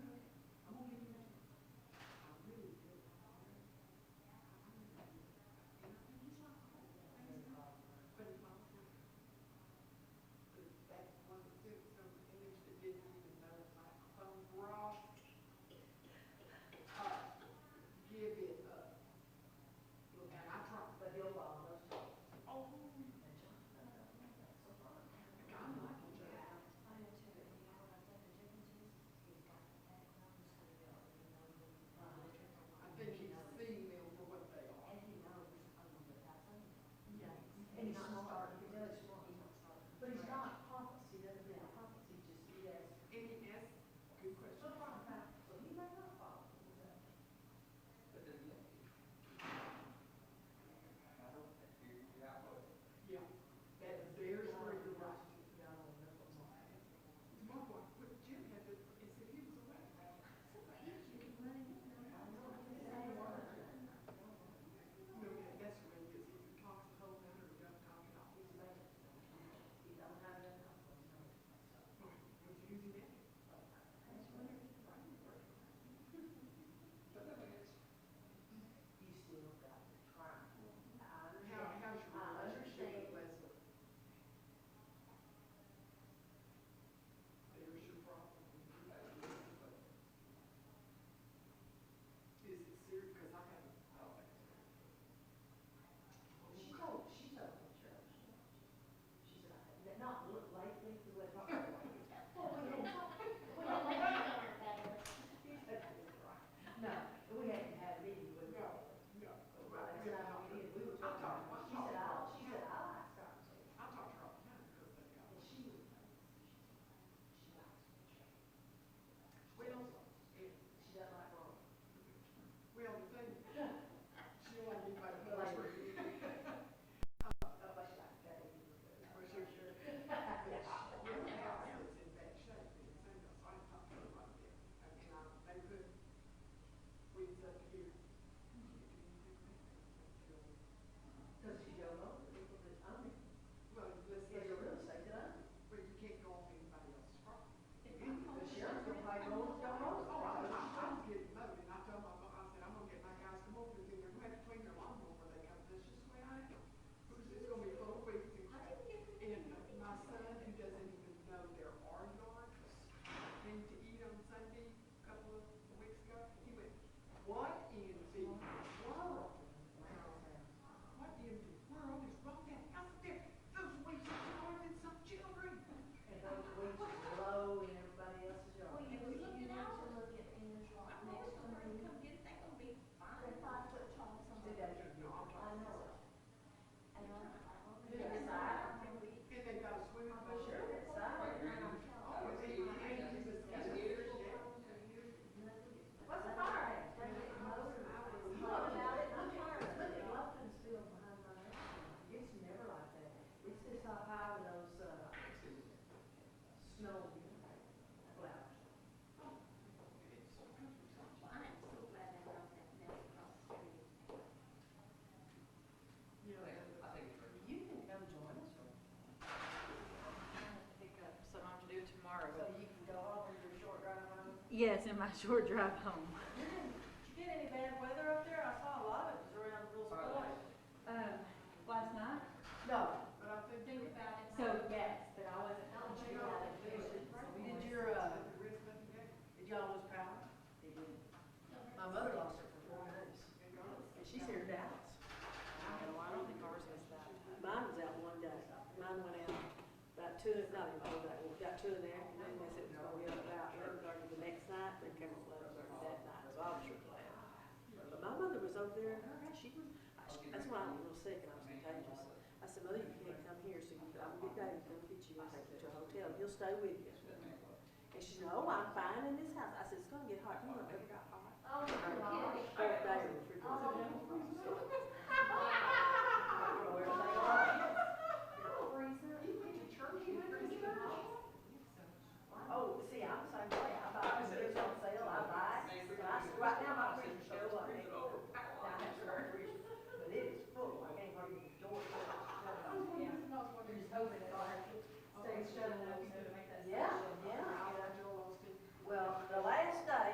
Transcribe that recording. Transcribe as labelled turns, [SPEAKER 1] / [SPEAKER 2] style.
[SPEAKER 1] Oh,
[SPEAKER 2] uh,
[SPEAKER 1] uh,
[SPEAKER 3] Yes, in my short drive home.
[SPEAKER 1] Did you get any bad weather up there? I saw a lot of it was around Rules Point.
[SPEAKER 3] Um, last night?
[SPEAKER 1] No, but I could think about it.
[SPEAKER 3] So, yes, but I wasn't. home.
[SPEAKER 1] Did your, did your, uh, did y'all lose power? They did. My mother lost it for four days. And she's here in Dallas. No, I don't think ours was that.
[SPEAKER 2] Mine was out one day, mine went out about two, not even all day, we got two in there, and then they said it was gonna be up about, it started the next night, then came up with it that night, so I was sure glad. But my mother was over there, and her, house, she was, I- she- that's why I'm real sick, and I was contagious. I said, mother, you can't come here, so you, I'm gonna get Dave, to come Oh, get you, and take you to a hotel, he'll stay with you. And she said, oh, I'm fine in this house, I said, Oh, Oh, Oh,